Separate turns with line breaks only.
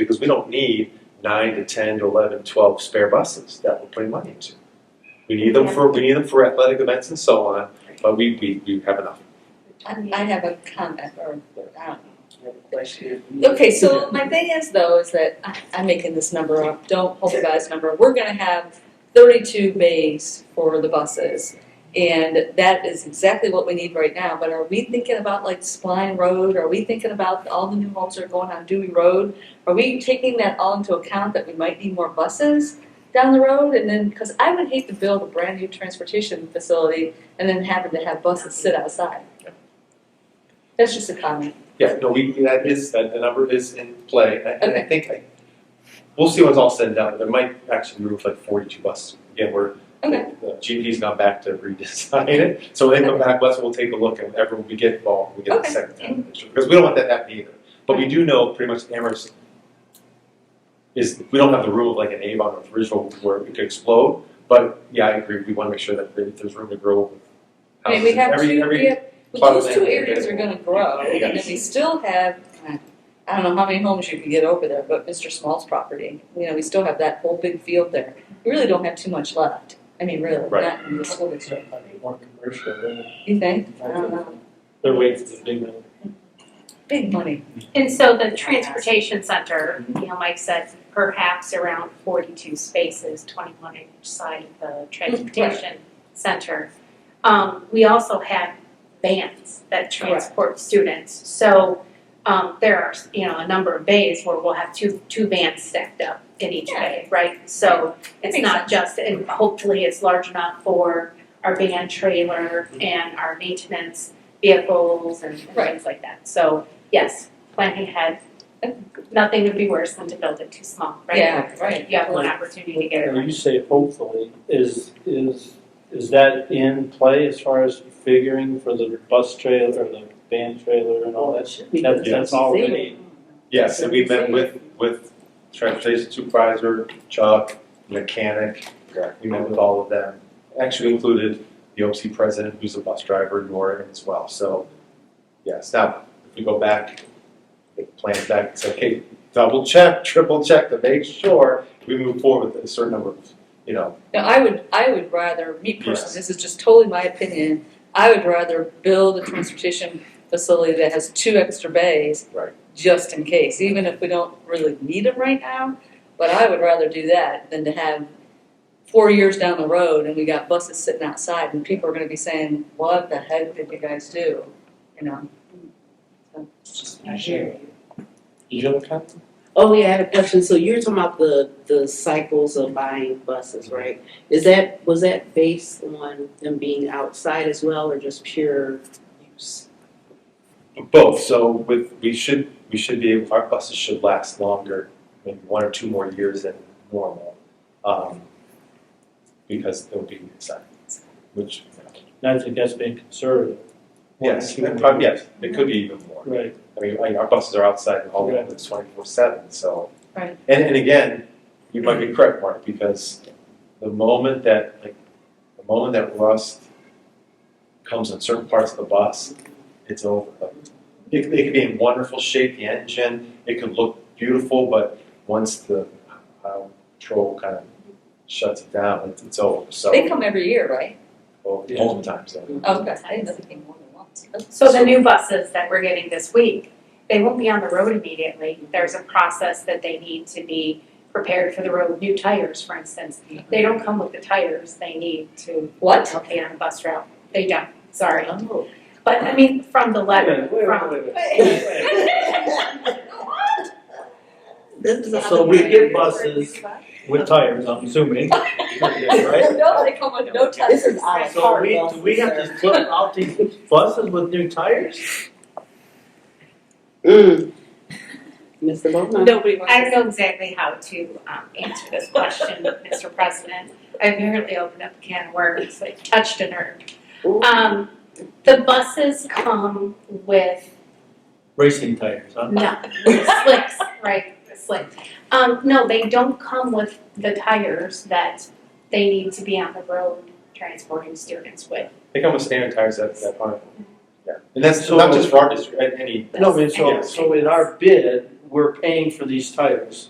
because we don't need nine to 10 to 11, 12 spare buses that we're putting money into. We need them for, we need them for athletic events and so on, but we, we, we have enough.
I, I have a comment or, I don't
I have a question.
know. Okay, so my thing is though, is that I, I'm making this number up, don't hold me by this number, we're gonna have thirty-two bays for the buses. And that is exactly what we need right now, but are we thinking about like Spline Road, are we thinking about all the new homes that are going on Dewey Road? Are we taking that all into account that we might need more buses down the road and then, cause I would hate to build a brand new transportation facility and then having to have buses sit outside. That's just a comment.
Yeah, no, we, that is, that the number is in play, and I- and I
Okay.
think, I- we'll see when it's all said and done, there might actually be room for like forty-two buses. Again, we're,
Okay.
the GP's gone back to redesign it, so when they come back, let's, we'll take a look, and everyone, we get involved, we get the
Okay.
second time, because we don't want that to happen either. But we do know pretty much Amherst is, we don't have the rule of like an Avon or Ridgeville where it could explode, but yeah, I agree, we wanna make sure that if there's room to grow.
I mean, we
houses,
have
every-
two,
every-
we have,
plot
well,
of
those two
land
areas are
available.
gonna grow,
Yeah.
and then we still have, I don't know how many homes you can get over there, but Mr. Small's property, you know, we still have that whole big field there. We really don't have too much left, I mean, really,
Right.
not in the school district,
More commercial, than-
you think? I don't know,
They're waiting for the big one.
big money,
And so the transportation center, you know, Mike said perhaps around forty-two spaces, twenty-one each side of the transportation center. Um, we also have vans that transport students, so, um, there are, you know, a number of bays where we'll have two, two vans stacked up in each
Yeah.
bay, right? So it's
makes
not just, and hopefully it's large enough for our van trailer and our maintenance vehicles and and
Mm-hmm. Right.
things like that, so. Yes, planning ahead. Nothing would be worse than to build it too small, right?
yeah, Mm-hmm. right.
You have one opportunity to get it
When
right.
you say hopefully, is, is, is that in play as far as figuring for the bus trailer or the van trailer and all that? That, that's already,
Yes, and we met with, with transportation supervisor, Chuck, mechanic. We met with all of them. Actually included the OC president, who's a bus driver, Nora as well. So, yes, now, if we go back, the plan back and say, hey, double check, triple check to make sure we move forward with a certain number of, you know,
Now, I would, I would rather, me personally, this is just totally my opinion, I would rather build a transportation facility that has two extra bays.
Right.
Just in case, even if we don't really need them right now, but I would rather do that than to have four years down the road and we got buses sitting outside and people are gonna be saying, what the heck did you guys do? You know?
I hear Did you have a comment?
Oh, yeah, I had a question. So you're talking about the, the cycles of buying buses, right? Is that, was that based on them being outside as well or just pure use?
Both, so with, we should, we should be able, our buses should last longer, maybe one or two more years than normal. um, Because they'll be inside, which,
I think that's being conservative.
yes, and probably, yes, it could be even more.
Right,
I mean, like, our buses are outside all the time, it's twenty-four seven, so.
Right.
And, and again, you might be correct, Mark, because the moment that, like, the moment that rust comes in certain parts of the bus, it's over. Like, It, it could be in wonderful shape, the engine, it could look beautiful, but once the Ohio patrol kind of shuts it down, it's, it's over, so.
They come every year, right? Oh,
All the time, so.
Okay, I didn't know they came more than once.
So the new buses that we're getting this week, they won't be on the road immediately. There's a process that they need to be prepared for the road, new tires, for instance. They don't come with the tires they need to
What?
okay on a bus route. They don't, sorry.
Oh.
But I mean, from the letter,
Wait, wait,
from.
wait, wait.
This is
So we get buses with tires, I'm assuming. Right?
No, they come with no tires.
This is our
So
car
we, do we have to put out these buses with new tires?
Mm. Mr. Bona?
Nobody wants
I don't know exactly how to um, answer this question, Mr. President. I apparently opened up a can of worms, I touched a nerve.
Ooh.
Um, the buses come with
Racing tires, huh?
no slicks, right? Slick. Um, no, they don't come with the tires that they need to be on the road transporting students with.
They come with standard tires that, that aren't, yeah, and that's not
So-
just for our district, any,
No, I mean, so,
Yes.
so in our bid, we're paying for these tires.